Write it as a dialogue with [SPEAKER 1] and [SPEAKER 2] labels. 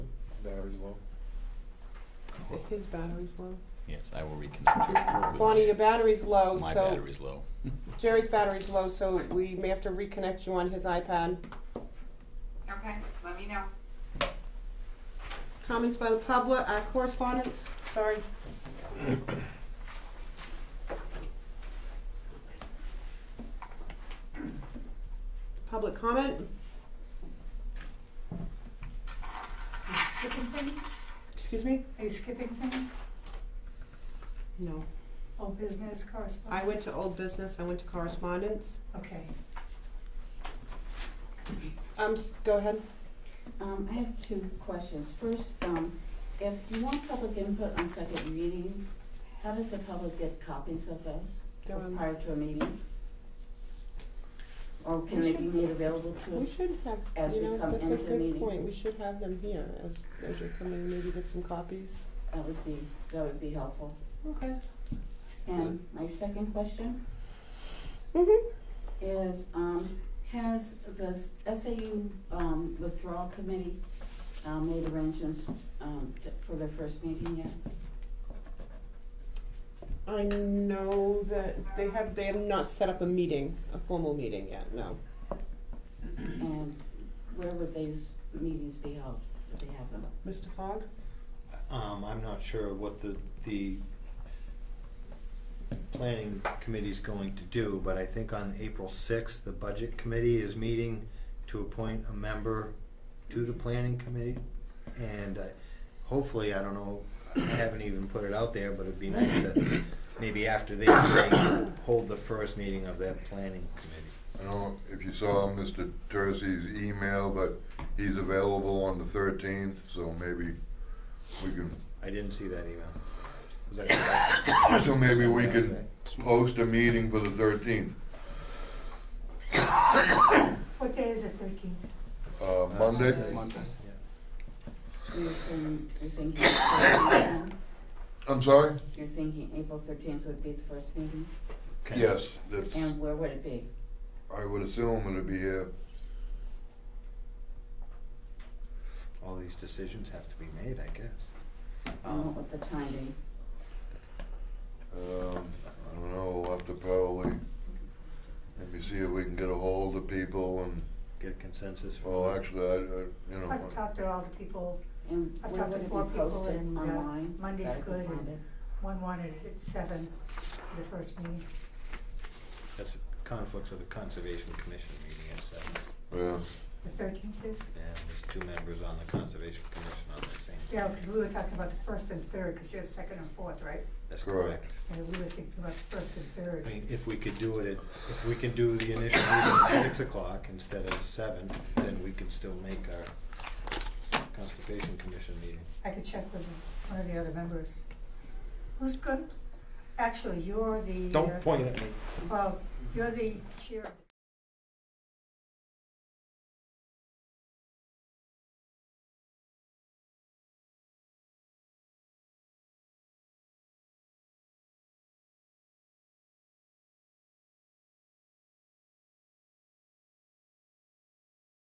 [SPEAKER 1] Battery's low.
[SPEAKER 2] His battery's low.
[SPEAKER 3] Yes, I will reconnect.
[SPEAKER 2] Bonnie, your battery's low,
[SPEAKER 3] My
[SPEAKER 2] so
[SPEAKER 3] battery's low.
[SPEAKER 2] Jerry's battery's low, so we may have to reconnect you on his iPad.
[SPEAKER 4] Okay, let me know.
[SPEAKER 2] Comments by the public, uh, correspondence, sorry. Public comment,
[SPEAKER 5] Skipping things?
[SPEAKER 2] excuse me?
[SPEAKER 5] Are you skipping things?
[SPEAKER 2] No.
[SPEAKER 5] Old business
[SPEAKER 2] I
[SPEAKER 5] correspondence?
[SPEAKER 2] went to old business, I went to correspondence.
[SPEAKER 5] Okay.
[SPEAKER 2] Um, s- go ahead.
[SPEAKER 6] Um, I have two questions. First, um, if you want public input on second readings, how does the public get copies of those
[SPEAKER 2] They're on-
[SPEAKER 6] prior to a meeting? Or can
[SPEAKER 2] We
[SPEAKER 6] they be
[SPEAKER 2] should-
[SPEAKER 6] made available to
[SPEAKER 2] We
[SPEAKER 6] us?
[SPEAKER 2] should have,
[SPEAKER 6] As
[SPEAKER 2] you
[SPEAKER 6] we
[SPEAKER 2] know,
[SPEAKER 6] come
[SPEAKER 2] that's a
[SPEAKER 6] into the
[SPEAKER 2] good
[SPEAKER 6] meeting.
[SPEAKER 2] point, we should have them here as, as you're coming, maybe get some copies.
[SPEAKER 6] That would be, that would be helpful.
[SPEAKER 2] Okay.
[SPEAKER 6] And my second question
[SPEAKER 2] Mm-hmm.
[SPEAKER 6] is, um, has the SAU, um, withdrawal committee, um, made arrangements, um, t- for their first meeting yet?
[SPEAKER 2] I know that they have, they have not set up a meeting, a formal meeting yet, no.
[SPEAKER 6] And where would these meetings be held, if they have them?
[SPEAKER 2] Mr. Fogg?
[SPEAKER 7] Um, I'm not sure what the, the planning committee's going to do, but I think on April sixth, the budget committee is meeting to appoint a member to the planning committee. And I- hopefully, I don't know, I haven't even put it out there, but it'd be nice to, maybe after they meeting, hold the first meeting of that planning committee.
[SPEAKER 8] I don't know if you saw Mr. Tercey's email, but he's available on the thirteenth, so maybe we can,
[SPEAKER 7] I didn't see that email. Was that-
[SPEAKER 8] so maybe we could post a meeting for the thirteenth.
[SPEAKER 5] What day is the thirteenth?
[SPEAKER 8] Uh, Monday?
[SPEAKER 7] Yeah.
[SPEAKER 6] You're saying, you're thinking, April 13th?
[SPEAKER 8] I'm sorry?
[SPEAKER 6] you're thinking April thirteenth would be the first meeting,
[SPEAKER 7] Okay.
[SPEAKER 8] Yes, that's,
[SPEAKER 6] and where would it be?
[SPEAKER 8] I would assume it'd be here.
[SPEAKER 7] all these decisions have to be made, I guess.
[SPEAKER 6] And
[SPEAKER 7] Um,
[SPEAKER 6] what would the time be?
[SPEAKER 8] Um, I don't know, we'll have to probably, let me see if we can get a hold of people and,
[SPEAKER 7] Get consensus for.
[SPEAKER 8] well, actually, I, I, you know.
[SPEAKER 5] I've talked to all the people,
[SPEAKER 6] And
[SPEAKER 5] I've
[SPEAKER 6] where
[SPEAKER 5] talked to
[SPEAKER 6] would it
[SPEAKER 5] four
[SPEAKER 6] be
[SPEAKER 5] people
[SPEAKER 6] posted
[SPEAKER 5] and, uh,
[SPEAKER 6] online?
[SPEAKER 5] Monday's
[SPEAKER 6] that I could
[SPEAKER 5] good.
[SPEAKER 6] find it?
[SPEAKER 5] one wanted it at seven for the first meeting.
[SPEAKER 7] That's conflicts with the Conservation Commission meeting at seven.
[SPEAKER 8] Yeah,
[SPEAKER 5] The thirteenth is?
[SPEAKER 7] And there's two members on the Conservation Commission on that same.
[SPEAKER 5] Yeah, because we were talking about the first and third, because you're second and fourth, right?
[SPEAKER 7] That's
[SPEAKER 8] Correct.
[SPEAKER 7] correct.
[SPEAKER 5] And we were thinking about the first and
[SPEAKER 7] I
[SPEAKER 5] third.
[SPEAKER 7] mean, if we could do it at, if we can do the initial meeting at six o'clock instead of seven, then we could still make our Conservation Commission meeting.
[SPEAKER 5] I could check with one of the other members. Who's good? Actually, you're the. uh,
[SPEAKER 7] Don't point at me.
[SPEAKER 5] Well, you're the chair of the